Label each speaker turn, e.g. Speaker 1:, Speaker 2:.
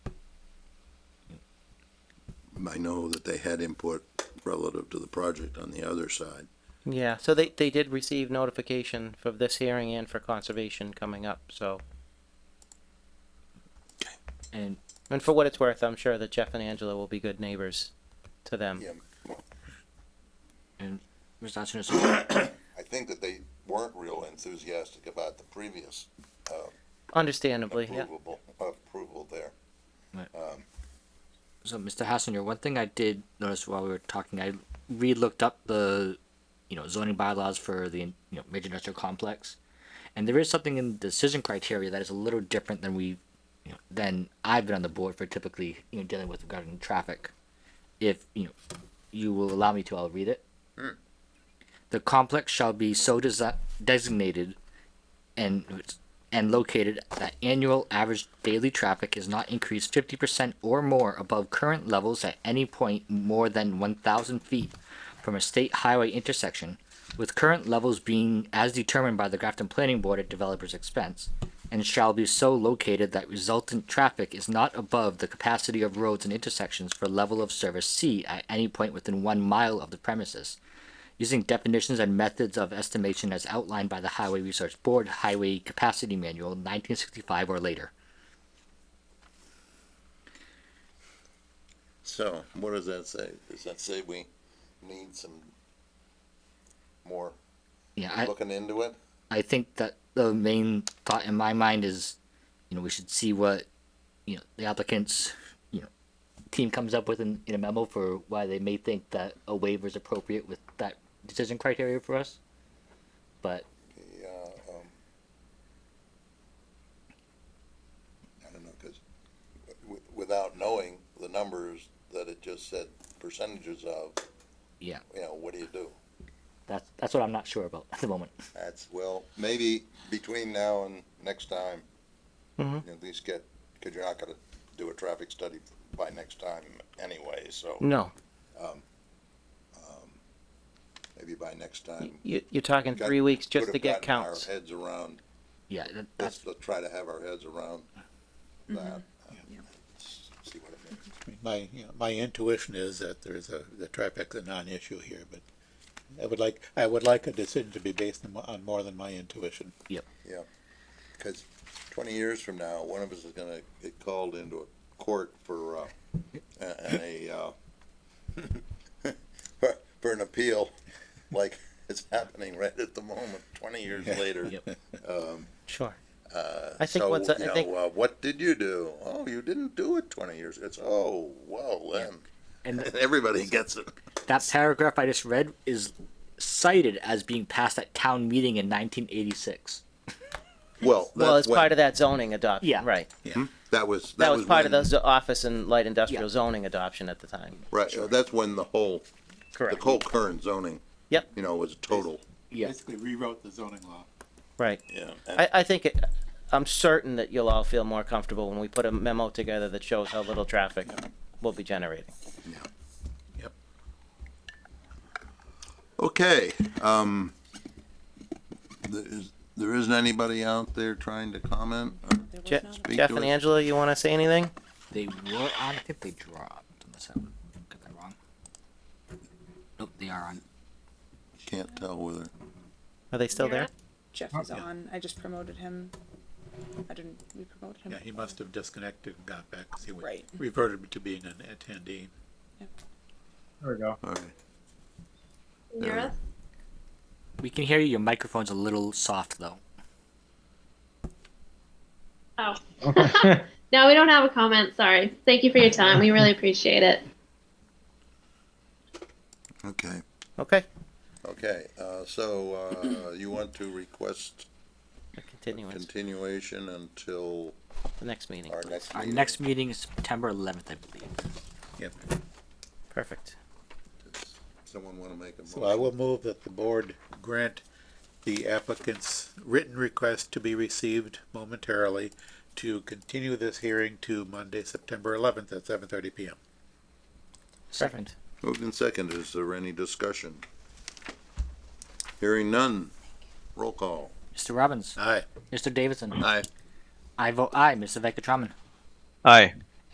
Speaker 1: I know that they had input relative to the project on the other side.
Speaker 2: Yeah, so they, they did receive notification for this hearing and for conservation coming up, so.
Speaker 3: And
Speaker 2: And for what it's worth, I'm sure that Jeff and Angela will be good neighbors to them.
Speaker 4: Yeah,
Speaker 3: and Mr. Hutchinson, so
Speaker 4: I think that they weren't real enthusiastic about the previous
Speaker 2: Understandably, yeah.
Speaker 4: approvable, approval there.
Speaker 3: so Mr. Hassinger, one thing I did notice while we were talking, I re-looked up the, you know, zoning bylaws for the you know major industrial complex, and there is something in the decision criteria that is a little different than we, you know, than I've been on the board for typically you know dealing with regarding traffic. If you know, you will allow me to, I'll read it. The complex shall be so desi- designated, and it's- and located that annual average daily traffic is not increased 50% or more above current levels at any point more than 1,000 feet from a state highway intersection, with current levels being as determined by the Grafton Planning Board at developer's expense, and shall be so located that resultant traffic is not above the capacity of roads and intersections for level of service C at any point within one mile of the premises using definitions and methods of estimation as outlined by the Highway Research Board Highway Capacity Manual, 1965 or later.
Speaker 4: So, what does that say? Does that say we need some more
Speaker 3: Yeah, I,
Speaker 4: looking into it?
Speaker 3: I think that the main thought in my mind is, you know, we should see what, you know, the applicant's, you know, team comes up with in, in a memo for why they may think that a waiver is appropriate with that decision criteria for us. But
Speaker 4: Yeah, um, I don't know, cause w- without knowing the numbers that it just said percentages of,
Speaker 3: yeah,
Speaker 4: you know, what do you do?
Speaker 3: that's that's what I'm not sure about at the moment.
Speaker 4: That's, well, maybe between now and next time,
Speaker 2: Mhm.
Speaker 4: at least get, cause you're not gonna do a traffic study by next time anyway, so
Speaker 2: No,
Speaker 4: maybe by next
Speaker 2: y-
Speaker 4: time.
Speaker 2: you, you're talking
Speaker 4: got-
Speaker 2: three weeks just
Speaker 4: could've
Speaker 2: to get
Speaker 4: gotten
Speaker 2: counts.
Speaker 4: Our heads around,
Speaker 3: Yeah, that, that's
Speaker 4: let's, let's try to have our heads around
Speaker 2: Mm-hmm.
Speaker 4: that. See what it means.
Speaker 5: I mean, My, you know, my intuition is that there's a, the trifecta non-issue here, but I would like, I would like a decision to be based on, mo- on more than my intuition.
Speaker 4: Yeah, because twenty years from now, one of us is gonna get called into a court for, uh, a- and a, uh, for, for an appeal, like it's happening right at the moment, twenty years later.
Speaker 3: Yep.
Speaker 2: Sure.
Speaker 4: Uh,
Speaker 2: I think
Speaker 4: so,
Speaker 2: what's- I
Speaker 4: you know,
Speaker 2: think-
Speaker 4: uh, What did you do? Oh, you didn't do it twenty years, it's, oh, well, then,
Speaker 3: and
Speaker 4: everybody gets it.
Speaker 3: That paragraph I just read is cited as being passed at town meeting in 1986.
Speaker 4: Well,
Speaker 2: Well, it's
Speaker 4: that's
Speaker 2: part
Speaker 4: when, Hmm?
Speaker 2: of that zoning adoption,
Speaker 3: Yeah.
Speaker 2: right?
Speaker 4: that was,
Speaker 2: That was part of the
Speaker 4: when-
Speaker 2: zo- office and light industrial
Speaker 3: Yeah.
Speaker 2: zoning adoption at the time.
Speaker 4: Right, uh, that's when the whole, the
Speaker 2: Correct.
Speaker 4: whole current zoning,
Speaker 2: Yep,
Speaker 4: you know, was total.
Speaker 3: Yeah.
Speaker 5: Basically rewrote the zoning law.
Speaker 2: right.
Speaker 4: Yeah.
Speaker 2: I, I think it, I'm certain that you'll all feel more comfortable when we put a memo together that shows how little traffic we'll be generating.
Speaker 4: Okay, um, there is, there isn't anybody out there trying to comment? or
Speaker 2: Je-
Speaker 4: speak
Speaker 2: Jeff
Speaker 4: to
Speaker 2: and
Speaker 4: us?
Speaker 2: Angela, you want to say anything?
Speaker 3: They were on. I think they dropped. Unless I got that wrong. Nope, they are on.
Speaker 4: Can't tell whether,
Speaker 2: Are they still there?
Speaker 6: Jeff is on. I just promoted him. I didn't. We promoted him.
Speaker 5: Yeah, he must have disconnected and got back, because he was-
Speaker 6: Right.
Speaker 5: reverted to being an attendee.
Speaker 7: There we go.
Speaker 4: all right.
Speaker 8: Can you hear
Speaker 4: Yeah.
Speaker 8: us?
Speaker 3: We can hear you. Your microphone's a little soft though.
Speaker 8: Oh. no, we don't have a comment. Sorry. Thank you for your time. We really appreciate it.
Speaker 4: Okay,
Speaker 2: Okay,
Speaker 4: okay, uh, so, uh, you want to request
Speaker 2: a continuance,
Speaker 4: continuation until
Speaker 2: the next meeting,
Speaker 4: our
Speaker 2: please.
Speaker 4: next
Speaker 3: Our
Speaker 4: meeting?
Speaker 3: next meeting is September 11th, I believe.
Speaker 5: Yep.
Speaker 2: Perfect.
Speaker 4: Does Someone wanna make a motion?
Speaker 5: So I will move that the board grant the applicant's written request to be received momentarily to continue this hearing to Monday, September eleventh at seven thirty PM.
Speaker 2: Perfect.
Speaker 4: Moved and seconded, is there any discussion? Hearing none, roll call.
Speaker 3: Mr. Robbins,
Speaker 5: Aye.
Speaker 3: Mr. Davidson,
Speaker 4: Aye.
Speaker 3: I vote aye. Mr. Vecatraman,
Speaker 7: Aye.